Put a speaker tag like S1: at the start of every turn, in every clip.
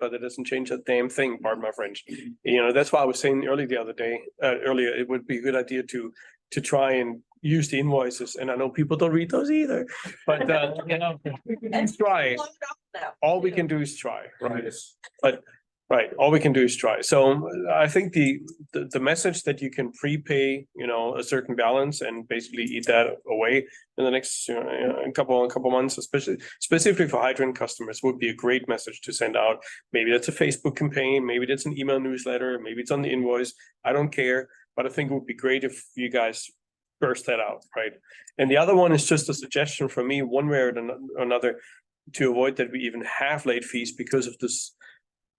S1: but it doesn't change a damn thing, pardon my French. You know, that's why I was saying earlier the other day, uh, earlier, it would be a good idea to, to try and use the invoices, and I know people don't read those either, but, uh, you know, we can
S2: And-
S1: try. All we can do is try, right? But, right, all we can do is try. So I think the, the, the message that you can prepay, you know, a certain balance and basically eat that away in the next, you know, a couple, a couple months, especially specifically for hydrant customers would be a great message to send out. Maybe that's a Facebook campaign, maybe that's an email newsletter, maybe it's on the invoice. I don't care, but I think it would be great if you guys burst that out, right? And the other one is just a suggestion from me, one way or ano- another, to avoid that we even have late fees because of this,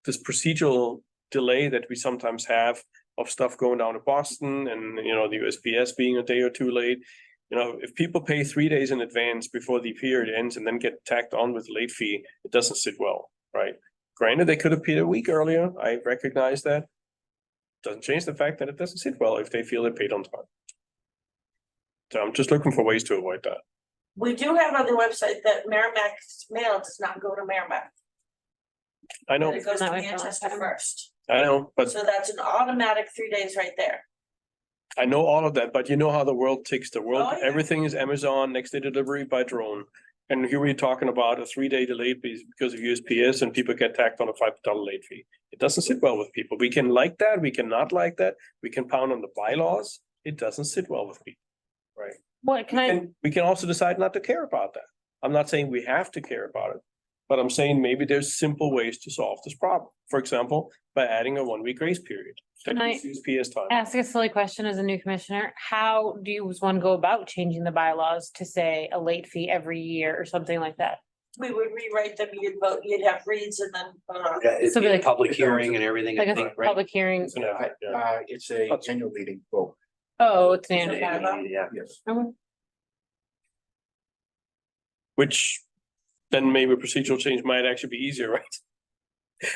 S1: this procedural delay that we sometimes have of stuff going down to Boston and, you know, the USPS being a day or two late. You know, if people pay three days in advance before the period ends and then get tacked on with late fee, it doesn't sit well, right? Granted, they could have paid a week earlier. I recognize that. Doesn't change the fact that it doesn't sit well if they feel they paid on time. So I'm just looking for ways to avoid that.
S2: We do have on the website that Merrimack's mail does not go to Merrimack.
S1: I know,
S2: that It goes to
S3: Not my fault.
S2: Manchester first.
S1: I know, but
S2: So that's an automatic three days right there.
S1: I know all of that, but you know how the world ticks. The world,
S2: Oh, yeah.
S1: everything is Amazon, next day delivery by drone. And here we're talking about a three day delay be- because of USPS and people get tacked on a five dollar late fee. It doesn't sit well with people. We can like that, we can not like that, we can pound on the bylaws. It doesn't sit well with people.
S3: What, can I,
S1: And we can also decide not to care about that. I'm not saying we have to care about it. But I'm saying maybe there's simple ways to solve this problem. For example, by adding a one week grace period. That
S3: Can I
S1: gives USPS time.
S3: ask a silly question as a new commissioner? How do you one go about changing the bylaws to say a late fee every year or something like that?
S2: We would rewrite them, you'd vote, you'd have reads and then vote on.
S4: Yeah, it'd
S3: So
S4: be a
S3: like-
S4: public hearing and everything,
S3: Like
S4: I
S3: a
S4: think, right?
S3: public hearing?
S1: It's an effort, yeah.
S5: Uh, it's a
S1: That's-
S5: annual meeting vote,
S3: Oh, it's
S2: So
S3: an.
S2: bylaw.
S4: Yeah.
S5: yes.
S1: Which then maybe procedural change might actually be easier, right?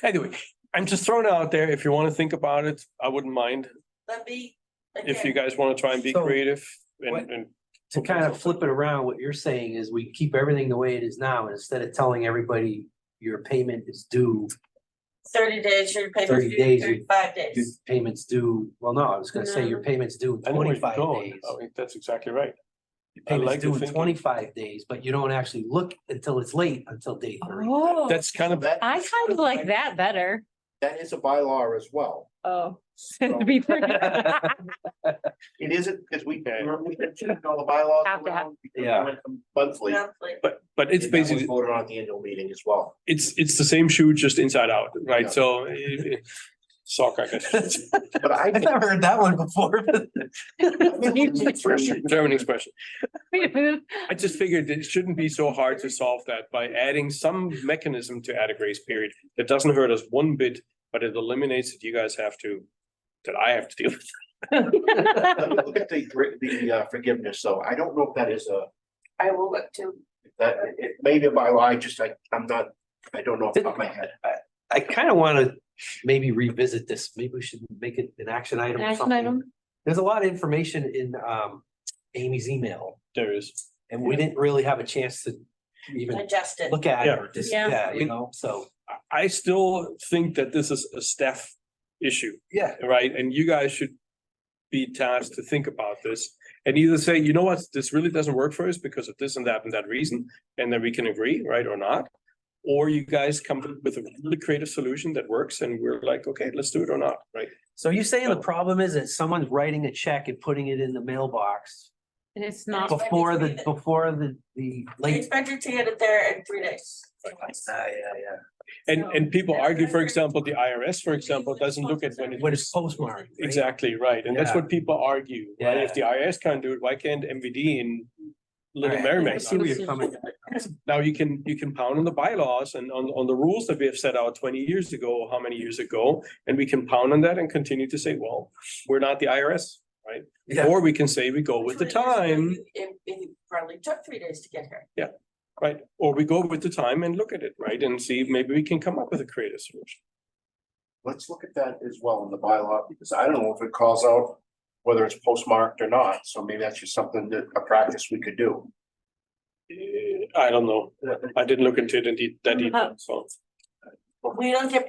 S1: Anyway, I'm just throwing it out there. If you want to think about it, I wouldn't mind.
S2: That'd be.
S1: If you
S2: again,
S1: guys want to try and be
S4: So,
S1: creative
S4: what-
S1: and, and
S4: To kind of flip it around, what you're saying is we keep everything the way it is now, and instead of telling everybody your payment is due,
S2: Thirty days, your payment's
S4: 30
S2: due
S4: days, you-
S2: thirty-five
S4: your
S2: days.
S4: payments due, well, no, I was gonna say your payment's due in
S1: I know where you're
S4: twenty-five
S1: going.
S4: days.
S1: I think that's exactly right.
S4: Your
S1: I like
S4: Payment's
S1: the
S4: due in
S1: thinking.
S4: twenty-five days, but you don't actually look until it's late until day three.
S3: Oh,
S1: That's kind of,
S5: That-
S3: I kind of like that better.
S5: That is a bylaw as well.
S3: Oh.
S5: So
S3: To be fair.
S5: It isn't, because we,
S1: Okay.
S5: we're- we can check all the bylaws
S3: Have to have-
S5: around. because we
S4: Yeah.
S5: went from Monthly.
S2: Monthly.
S1: but, but it's
S5: and that was
S1: basically,
S5: Voted on at the annual meeting as well.
S1: it's, it's the same shoe, just inside out,
S5: Yeah.
S1: right? So it- it- sock, I guess.
S5: But I.
S4: I've never heard that one before.
S1: German expression.
S3: Well,
S1: I just figured it shouldn't be so hard to solve that by adding some mechanism to add a grace period that doesn't hurt us one bit, but it eliminates that you guys have to, that I have to deal with.
S5: Let me Look at the, gr- the uh, forgiveness, though. I don't know if that is a,
S2: I will look too.
S5: that, it may be a bylaw, I just, I, I'm not, I don't know off the top of my head.
S4: I kind of want to maybe revisit this. Maybe we should make it an action item or
S3: Action
S4: something.
S3: item?
S4: There's a lot of information in um Amy's email
S1: There is.
S4: and we didn't really have a chance to even
S2: Digest it.
S4: look at it or just,
S3: Yeah.
S4: yeah, you know, so.
S1: I- I still think that this is a staff issue,
S4: Yeah.
S1: right? And you guys should be tasked to think about this and either say, you know what, this really doesn't work for us because of this and that and that reason, and then we can agree, right, or not. Or you guys come up with a really creative solution that works and we're like, okay, let's do it or not, right?
S4: So you're saying the problem is that someone's writing a check and putting it in the mailbox
S3: And it's not,
S2: Well,
S4: before the, before the, the
S2: They
S4: late.
S2: expect you to get it there in three days.
S4: Ah, yeah,
S1: And, and people
S2: So-
S1: argue, for example, the IRS, for example, doesn't look at when
S4: yeah.
S1: it.
S4: When it's postmarked. right?
S1: Exactly, right. And that's
S4: Yeah.
S1: what people argue, right? If the IRS can't do it, why can't MVD in Little
S4: Alright, I
S1: Merrimack?
S4: see where you're coming.
S1: Now you can, you can pound on the bylaws and on, on the rules that we have set out twenty years ago, how many years ago? And we can pound on that and continue to say, well, we're not the IRS, right?
S4: Yeah.
S1: Or we can say we go with the time,
S2: It, it probably took three days to get here.
S1: right? Or we go with the time and look at it, right? And see, if maybe we can come up with a creative solution.
S5: Let's look at that as well in the bylaw, because I don't know if it calls out whether it's postmarked or not, so maybe that's just something that, a practice we could do.
S1: Eh, I don't know. I didn't look into it in de- that detail, so.
S2: We don't get